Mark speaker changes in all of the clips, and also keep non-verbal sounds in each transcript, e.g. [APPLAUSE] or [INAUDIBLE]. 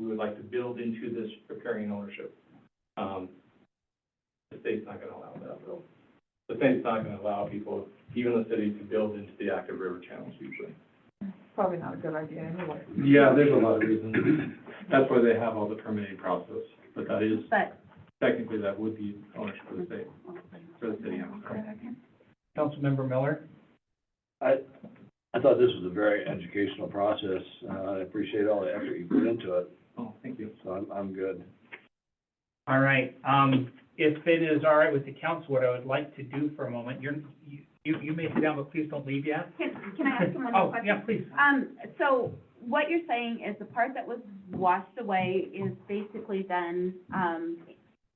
Speaker 1: like to build into this riparian ownership. Um, The state's not gonna allow that, though. The state's not gonna allow people, even the city, to build into the active river channels usually.
Speaker 2: Probably not a good idea anyway.
Speaker 1: Yeah, there's a lot of reasons. That's why they have all the permitting process, but that is,
Speaker 3: But,
Speaker 1: technically, that would be ownership of the state, for the city, I'm sorry.
Speaker 4: Councilmember Miller?
Speaker 5: I thought this was a very educational process. Uh, I appreciate all the effort you put into it,
Speaker 1: Oh, thank you.
Speaker 5: so I'm, I'm good.
Speaker 4: All right, um, if it is all right with the council, what I would like to do for a moment, you're, you, you may sit down, but please don't leave yet.
Speaker 3: can, can I ask someone a
Speaker 4: Oh,
Speaker 3: question?
Speaker 4: yeah, please.
Speaker 3: Um, so what you're saying is the part that was washed away is basically then, um,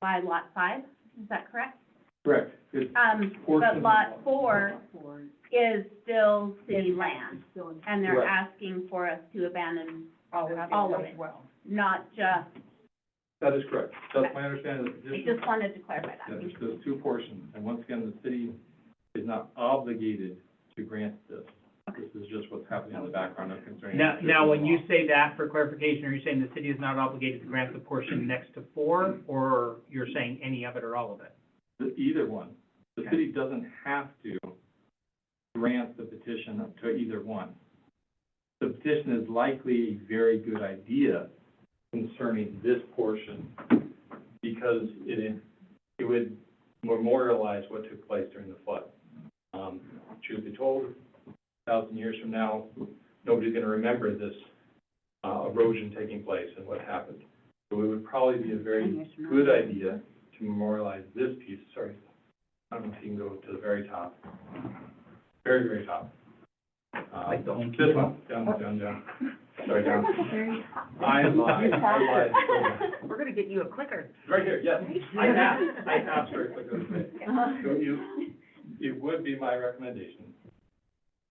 Speaker 3: by lot five, is that correct?
Speaker 1: Correct. It's
Speaker 3: Um,
Speaker 1: Portion
Speaker 3: but
Speaker 1: of
Speaker 3: lot
Speaker 1: lot.
Speaker 3: four is still city
Speaker 2: Yes.
Speaker 3: land,
Speaker 2: Still in
Speaker 3: and they're
Speaker 1: Correct.
Speaker 3: asking for us to abandon
Speaker 2: all of it
Speaker 3: All of it.
Speaker 2: as well.
Speaker 3: not just,
Speaker 1: That is correct. That's my understanding of the
Speaker 3: I
Speaker 1: petition.
Speaker 3: just wanted to clarify
Speaker 1: Yeah,
Speaker 3: that.
Speaker 1: there's those two portions, and once again, the city is not obligated to grant this. This is just what's happening in the background of concerning.
Speaker 4: Now, now, when you say that, for clarification, are you saying the city is not obligated to grant the portion next to four, or you're saying any of it or all of it?
Speaker 1: Either one. The
Speaker 4: Okay.
Speaker 1: city doesn't have to grant the petition to either one. The petition is likely a very good idea concerning this portion because it, it would memorialize what took place during the flood. Um, truth be told, a thousand years from now, nobody's gonna remember this, uh, erosion taking place and what happened. So it would probably be a very good idea to memorialize this piece, sorry, I don't know if you can go to the very top, very, very top. Uh,
Speaker 4: Like the home
Speaker 1: This one, down, down, down, sorry, down.
Speaker 3: [LAUGHS]
Speaker 1: I lied, I lied.
Speaker 2: We're gonna get you a clicker.
Speaker 1: Right here, yes, I have, I have started clicking this
Speaker 3: Uh-huh.
Speaker 1: So you, it would be my recommendation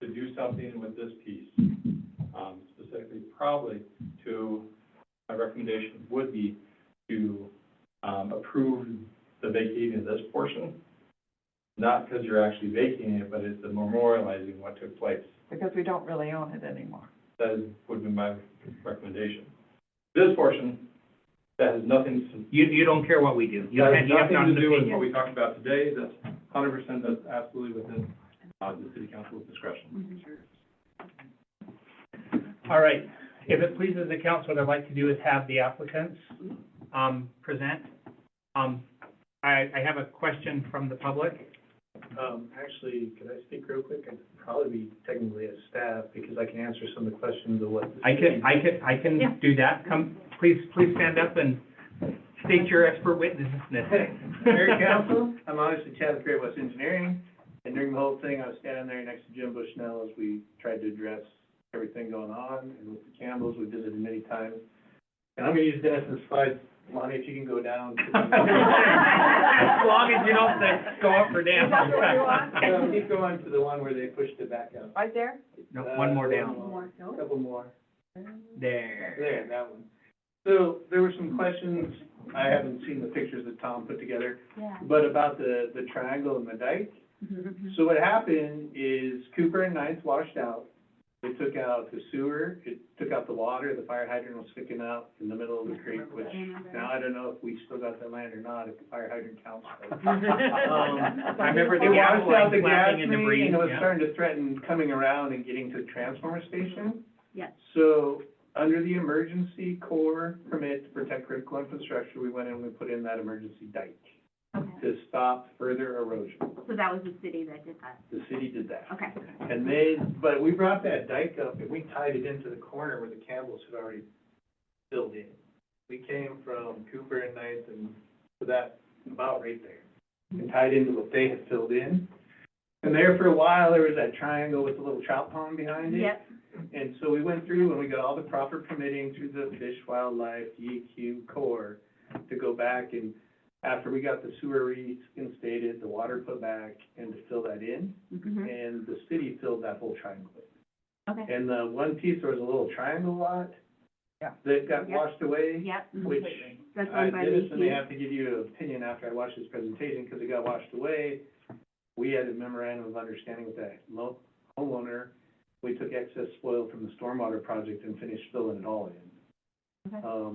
Speaker 1: to do something with this piece, um, specifically probably to, my recommendation would be to, um, approve the vacating of this portion, not because you're actually vacating it, but it's the memorializing what took place.
Speaker 2: Because we don't really own it anymore.
Speaker 1: That is, would be my recommendation. This portion, that has nothing to
Speaker 4: You, you don't care what we do. You
Speaker 1: that
Speaker 4: have-
Speaker 1: has
Speaker 4: you have not
Speaker 1: nothing to
Speaker 4: an
Speaker 1: do with
Speaker 4: opinion.
Speaker 1: what we talked about today, that's hundred percent, that's absolutely within, uh, the city council's discretion.
Speaker 6: Mm-hmm.
Speaker 4: All right, if it pleases the council, what I'd like to do is have the applicants, um, present. Um, I, I have a question from the public.
Speaker 6: Um, actually, could I speak real quick? I'd probably be technically as staff, because I can answer some of the questions of what.
Speaker 4: I can, I can, I
Speaker 3: Yeah.
Speaker 4: can do that. Come, please, please stand up and state your expert witnessness.
Speaker 6: Mayor Council, I'm obviously Chad with Great West Engineering, and during the whole thing, I was standing there next to Jim Bushnell as we tried to address everything going on, and with the Campbells, we visited many times. And I'm gonna use Dennis's slides, Lonnie, if you can go down.
Speaker 4: [LAUGHS] As long as you don't say, go up or down.
Speaker 2: Is that what you
Speaker 6: Um, Keep going to the one where they pushed it back up,
Speaker 2: Right there?
Speaker 4: No, one more down.
Speaker 6: a couple more. [LAUGHS]
Speaker 4: There.
Speaker 6: There, that one. So there were some questions, I haven't seen the pictures that Tom put together,
Speaker 3: Yeah.
Speaker 6: but about the, the triangle and the dike. So what happened is Cooper and Ninth washed out. They took out the sewer, it took out the water, the fire hydrant was sticking out in the middle of the creek, which now I don't know if we still got that land or not, if the fire hydrant counts.
Speaker 4: Oh,
Speaker 6: but-
Speaker 4: I remember the
Speaker 6: It
Speaker 4: gas
Speaker 6: washed out
Speaker 4: line
Speaker 6: the gas
Speaker 4: flapping and
Speaker 6: main,
Speaker 4: debris,
Speaker 6: and it was
Speaker 4: yeah.
Speaker 6: starting to threaten coming around and getting to the transformer station.
Speaker 3: Yes.
Speaker 6: So, under the emergency core permit to protect critical infrastructure, we went in and we put in that emergency dike
Speaker 3: Okay.
Speaker 6: to stop further erosion.
Speaker 3: So that was the city that did that,
Speaker 6: The city did that.
Speaker 3: okay.
Speaker 6: And then, but we brought that dike up and we tied it into the corner where the Campbells had already filled in. We came from Cooper and Ninth and to that, about right there, and tied into what they had filled in. And there for a while, there was that triangle with the little trout pond behind it.
Speaker 3: Yep,
Speaker 6: And so we went through and we got all the proper permitting through the Fish Wildlife DEQ Corps to go back and after we got the sewer reinstated, the water put back and to fill that in
Speaker 3: mhm,
Speaker 6: and the city filled that whole triangle.
Speaker 3: okay,
Speaker 6: And the one piece, there was a little triangle lot.
Speaker 2: Yeah.
Speaker 6: That got
Speaker 3: Yeah.
Speaker 6: washed away,
Speaker 3: yep. mhm.
Speaker 6: which
Speaker 3: That's
Speaker 6: I
Speaker 3: owned by
Speaker 6: did this, and they
Speaker 3: Leahy.
Speaker 6: have to give you an opinion after I watch this presentation, because it got washed away. We had a memorandum of understanding with that lo- homeowner. We took excess spoil from the stormwater project and finished filling it all in.
Speaker 3: Okay.
Speaker 6: Um,